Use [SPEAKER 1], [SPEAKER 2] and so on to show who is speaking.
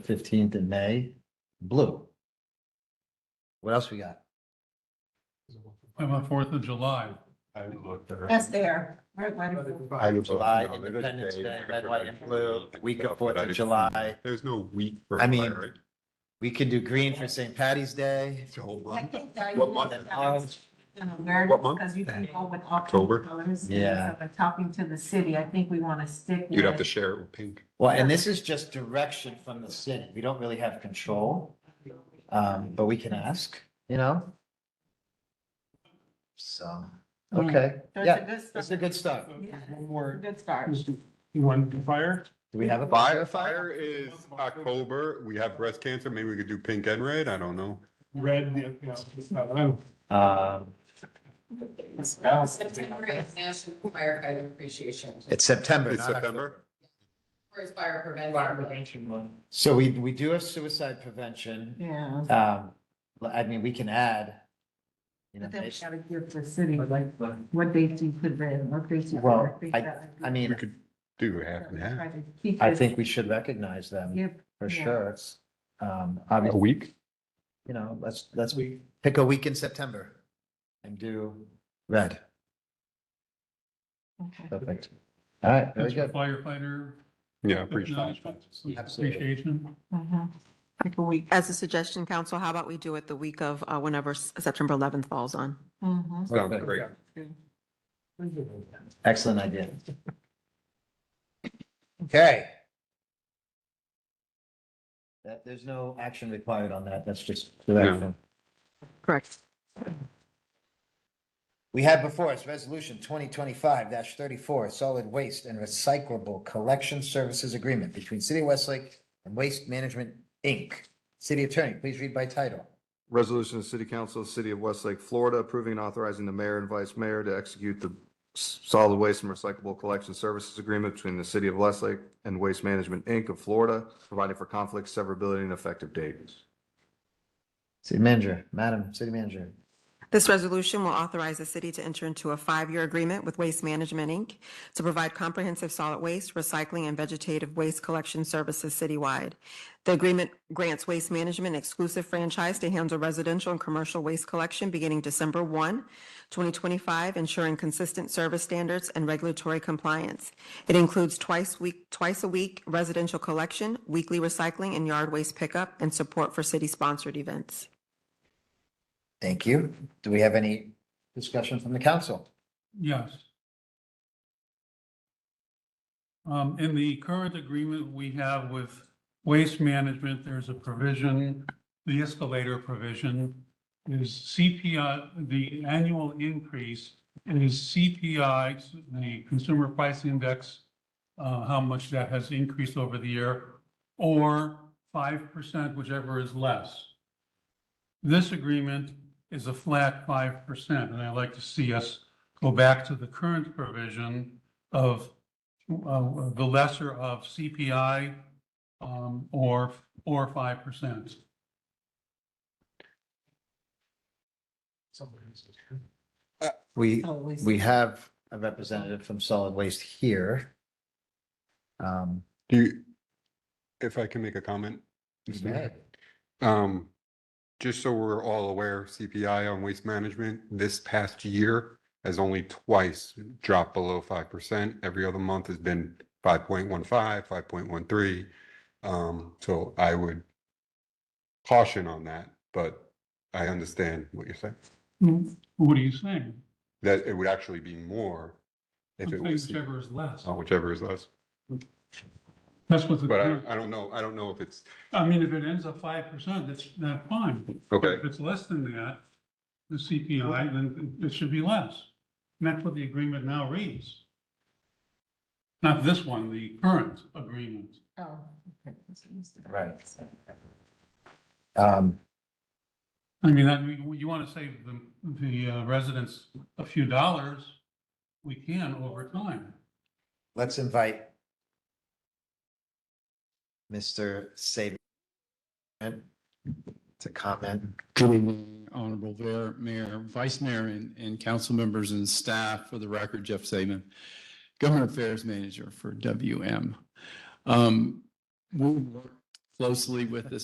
[SPEAKER 1] fifteenth in May, blue. What else we got?
[SPEAKER 2] Oh,
[SPEAKER 3] How about Fourth of July?
[SPEAKER 2] I looked there.
[SPEAKER 4] That's there. Right, right.
[SPEAKER 1] July, Independence Day, red, white, and blue, week of Fourth of July.
[SPEAKER 2] There's no week. for
[SPEAKER 1] I mean,
[SPEAKER 2] fire, right?
[SPEAKER 1] We could do green for St. Patty's Day.
[SPEAKER 2] It's a whole
[SPEAKER 4] I
[SPEAKER 2] month.
[SPEAKER 4] think that.
[SPEAKER 2] What month?
[SPEAKER 4] that was kind of weird
[SPEAKER 2] What month?
[SPEAKER 4] Because you can go with
[SPEAKER 2] October.
[SPEAKER 4] October colors.
[SPEAKER 1] Yeah.
[SPEAKER 4] But Talking to the city, I think we want to stick.
[SPEAKER 2] You'd have to
[SPEAKER 4] with-
[SPEAKER 2] share it with pink.
[SPEAKER 1] Well, and this is just direction from the city. We don't really have control, um, but we can ask, you know? So, okay,
[SPEAKER 4] So
[SPEAKER 1] yeah,
[SPEAKER 4] It's Hmm. a
[SPEAKER 1] that's the
[SPEAKER 4] good
[SPEAKER 1] good stuff.
[SPEAKER 4] start. Yeah,
[SPEAKER 3] One
[SPEAKER 4] it's a
[SPEAKER 3] more,
[SPEAKER 4] good start.
[SPEAKER 3] you want to fire?
[SPEAKER 1] Do we have a?
[SPEAKER 2] Fire, fire is October. We have breast cancer. Maybe we could do pink and red. I don't know.
[SPEAKER 3] Red, yeah, yeah, it's not- I don't-
[SPEAKER 1] Um,
[SPEAKER 5] September is National Firefighter Appreciation, Month,
[SPEAKER 1] it's September,
[SPEAKER 2] It's
[SPEAKER 1] not
[SPEAKER 2] September.
[SPEAKER 5] or is fire prevention. Month.
[SPEAKER 1] October. So we, we do have suicide prevention.
[SPEAKER 4] Yeah.
[SPEAKER 1] Um, I mean, we can add. you know,
[SPEAKER 4] But then we
[SPEAKER 1] maybe-
[SPEAKER 4] gotta give the city, like, what dates you put in, what dates you. put in.
[SPEAKER 1] Well,
[SPEAKER 4] think that would be-
[SPEAKER 1] I mean,
[SPEAKER 2] We could do half and half.
[SPEAKER 4] Try to keep
[SPEAKER 1] I
[SPEAKER 4] it-
[SPEAKER 1] think we should recognize them
[SPEAKER 4] Yeah,
[SPEAKER 1] for
[SPEAKER 4] Yeah.
[SPEAKER 1] sure. It's, um,
[SPEAKER 2] A
[SPEAKER 1] obviously,
[SPEAKER 2] week?
[SPEAKER 1] you know, let's, let's pick a week in September and do red.
[SPEAKER 4] okay.
[SPEAKER 1] Perfect. All right, very
[SPEAKER 3] That's your
[SPEAKER 1] good.
[SPEAKER 3] firefighter.
[SPEAKER 2] Yeah, appreciate it.
[SPEAKER 1] Absolutely.
[SPEAKER 3] Appreciation.
[SPEAKER 4] Mhm. Like a week.
[SPEAKER 6] As a suggestion, council, how about we do it the week of uh, whenever S- September 11th falls on?
[SPEAKER 1] Mm-hmm.
[SPEAKER 4] Mhm.
[SPEAKER 2] Sounds great.
[SPEAKER 1] Excellent idea. Okay. That, there's no action required on that. That's just direction.
[SPEAKER 6] Correct.
[SPEAKER 1] We have before us Resolution twenty twenty-five thirty-four, Solid Waste and Recyclable Collection Services Agreement between City of Westlake and Waste Management, Inc. City Attorney, please read by title.
[SPEAKER 7] Resolution of the City Council of the City of Westlake, Florida, approving and authorizing the mayor and vice mayor to execute the s- solid waste and recyclable collection services agreement between the City of Westlake and Waste Management, Inc. of Florida, providing for conflict, severability, and effective dates.
[SPEAKER 1] City Manager, Madam City Manager.
[SPEAKER 6] This resolution will authorize the city to enter into a five-year agreement with Waste Management, Inc. to provide comprehensive solid waste, recycling, and vegetative waste collection services citywide. The agreement grants Waste Management exclusive franchise to handle residential and commercial waste collection beginning December 1, 2025, ensuring consistent service standards and regulatory compliance. It includes twice week, twice a week residential collection, weekly recycling, and yard waste pickup, and support for city-sponsored events.
[SPEAKER 1] Thank you. Do we have any discussion from the council?
[SPEAKER 3] Yes. Um, in the current agreement we have with Waste Management, there's a provision, the escalator provision is CPI, the annual increase is CPI, the Consumer Price Index, uh, how much that has increased over the year, or five percent, whichever is less. This agreement is a flat five percent, and I'd like to see us go back to the current provision of uh, the lesser of CPI um, or, or 5%.
[SPEAKER 1] Uh, We,
[SPEAKER 4] Always.
[SPEAKER 1] we have a representative from solid waste here. Um,
[SPEAKER 2] Do you, if I can make a comment? Mr. Mayor? Um, just so we're all aware, CPI on waste management this past year has only twice dropped below five percent. Every other month has been 5.15, 5.13. Um, so I would caution on that, but I understand what you're saying.
[SPEAKER 3] What are you saying?
[SPEAKER 2] That it would actually be more if it
[SPEAKER 3] I'm saying
[SPEAKER 2] was,
[SPEAKER 3] Whichever is less.
[SPEAKER 2] oh, whichever is less.
[SPEAKER 3] That's what the,
[SPEAKER 2] But I,
[SPEAKER 3] current-
[SPEAKER 2] I don't know, I don't know if it's,
[SPEAKER 3] I mean, if it ends up 5%, that's not fine.
[SPEAKER 2] okay.
[SPEAKER 3] If it's less than that, the CPI, then it should be less. And that's what the agreement now reads. Not this one, the current agreement.
[SPEAKER 1] Mm-hmm.
[SPEAKER 4] Oh, okay. That's what used to be.
[SPEAKER 1] Right. um,
[SPEAKER 3] I mean, I mean, you want to save the, the uh, residents a few dollars, we can over time.
[SPEAKER 1] let's invite Mr. Saban to comment.
[SPEAKER 8] Good evening, Honorable Mayor- Mayor, Vice Mayor, and, and council members and staff. For the record, Jeff Saban, Government Affairs Manager for WM. Um, We worked closely with the